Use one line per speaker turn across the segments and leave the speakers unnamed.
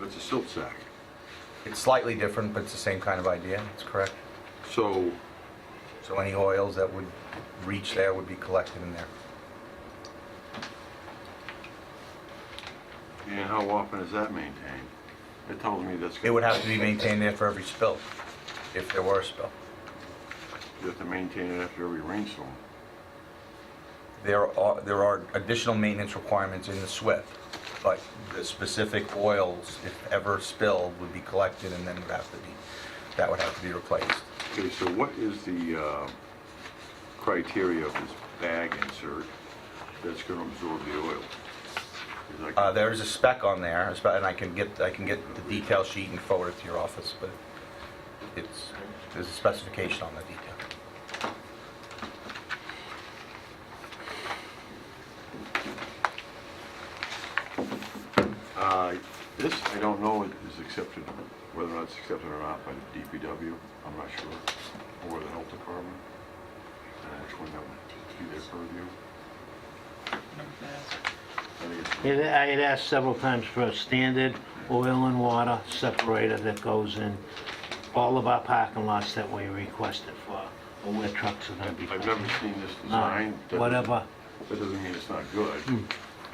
That's a silt sack.
It's slightly different, but it's the same kind of idea, that's correct.
So,
So any oils that would reach there would be collected in there.
and how often is that maintained? It tells me that's...
It would have to be maintained there for every spill, if there were a spill.
You have to maintain it after every rainstorm.
There are, there are additional maintenance requirements in the SWIP, but the specific oils, if ever spilled, would be collected and then would have to be, that would have to be replaced.
Okay, so what is the uh, criteria of this bag insert that's going to absorb the oil? Is that-
Uh, there is a spec on there, a spec- and I can get, I can get the detail sheet and forward it to your office, but it's, there's a specification on the detail.
Uh, This, I don't know, is accepted, whether or not it's accepted or not by the DPW, I'm not sure, or the health department, and which one that would be their purview. I think it's-
It- I had asked several times for a standard oil and water separator that goes in all of our parking lots that we requested for, or where trucks are gonna be.
I've
parked.
never seen this
No,
design. That-
Whatever,
That doesn't mean it's not good.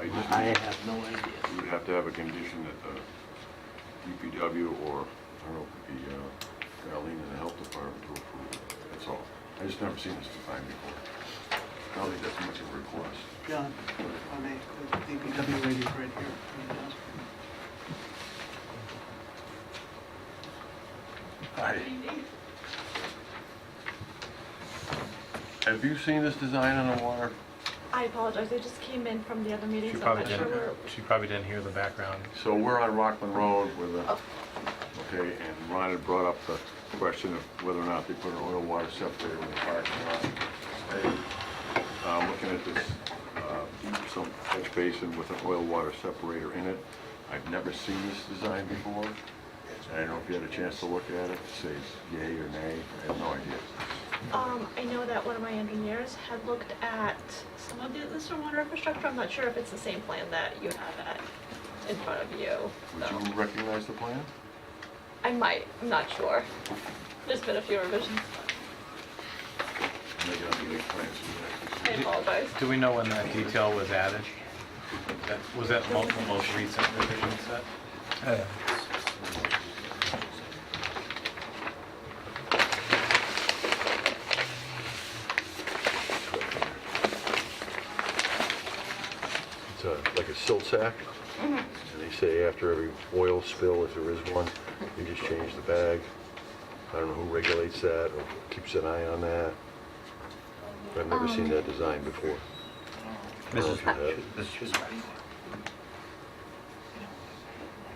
I
I
just,
have no idea.
you would have to have a condition that the DPW or, I don't know, if it be, uh, Darlene and the health department to approve it, that's all. I just never seen this design before. I don't think that's much of a request.
John, on the DPW lady right here. Right
Have you seen this design on the water?
I apologize, I just came in from the other meeting,
She
so I'm
probably
not sure
didn't,
where...
she probably didn't hear the background.
So we're on Rockland Road with a, okay, and Ron had brought up the question of whether or not they put an oil water separator in the parking lot. And, uh, looking at this, uh, some catch basin with an oil water separator in it. I've never seen this design before. I don't know if you had a chance to look at it, to say yay or nay, I have no idea.
Um, I know that one of my engineers had looked at some of the the stormwater infrastructure. I'm not sure if it's the same plan that you have at, in front of you,
Would
so...
you recognize the plan?
I might, I'm not sure. There's been a few revisions.
Maybe I'll be plans.
I apologize.
Do we know when that detail was added? That- Was that mo- the most recent revision set?
It's a, like a silt sack. And they say after every oil spill, if there is one, you just change the bag. I don't know who regulates that or keeps an eye on that. I've never seen that design before.
Mrs.
Or if you have.
Mrs.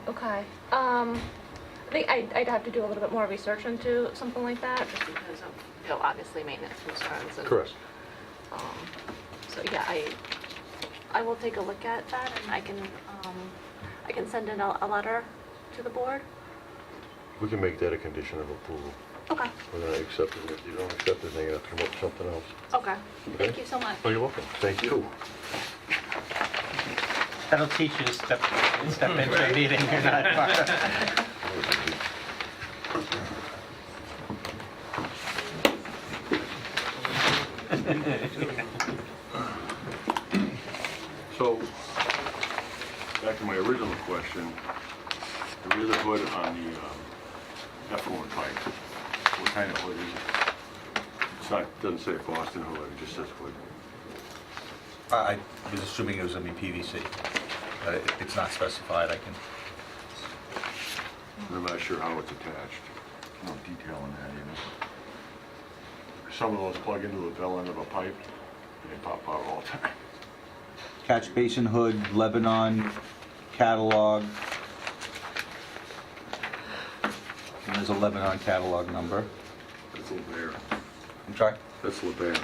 Okay, um, I think I'd, I'd have to do a little bit more research into something like that, just because of, you know, obviously maintenance concerns and...
Correct.
Um, So yeah, I, I will take a look at that and I can, um, I can send in a, a letter to the board.
We can make that a condition of approval.
Okay,
We're gonna accept it. If you don't accept it, then you have to come up with something else.
okay. Thank
Okay.
you so much.
Oh, you're welcome. Thank you.
That'll teach you to step, step into a meeting you're not part of.
So, back to my original question, there is a hood on the um, effluent pipe. What kind of hood is it? It's not, doesn't say Boston hood, it just says hood.
I I was assuming it was going to be PVC, but Uh, if it's not specified, I can,
I'm not sure how it's attached. No detail on that, you know? Some of those plug into the bell end of a pipe, and they pop out all the time.
Catch Basin Hood, Lebanon, catalog. And There's a Lebanon catalog number.
That's LeBaron.
I'm sorry,
That's LeBaron.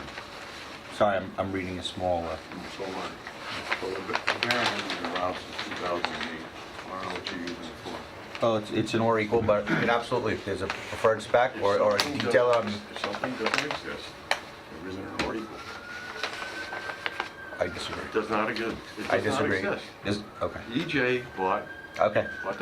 sorry, I'm, I'm reading a small, uh,
So am I. So LeBaron has been around since 2008. I don't know what you're using it for.
oh, it's, it's an or equal, but it absolutely, if there's a preferred spec or, or a
Something
detail um, on,
doesn't- If something doesn't exist, there isn't an article.
I disagree.
It does not exist. It
I
does not
disagree.
exist.
Dis- Okay,
EJ bought
okay.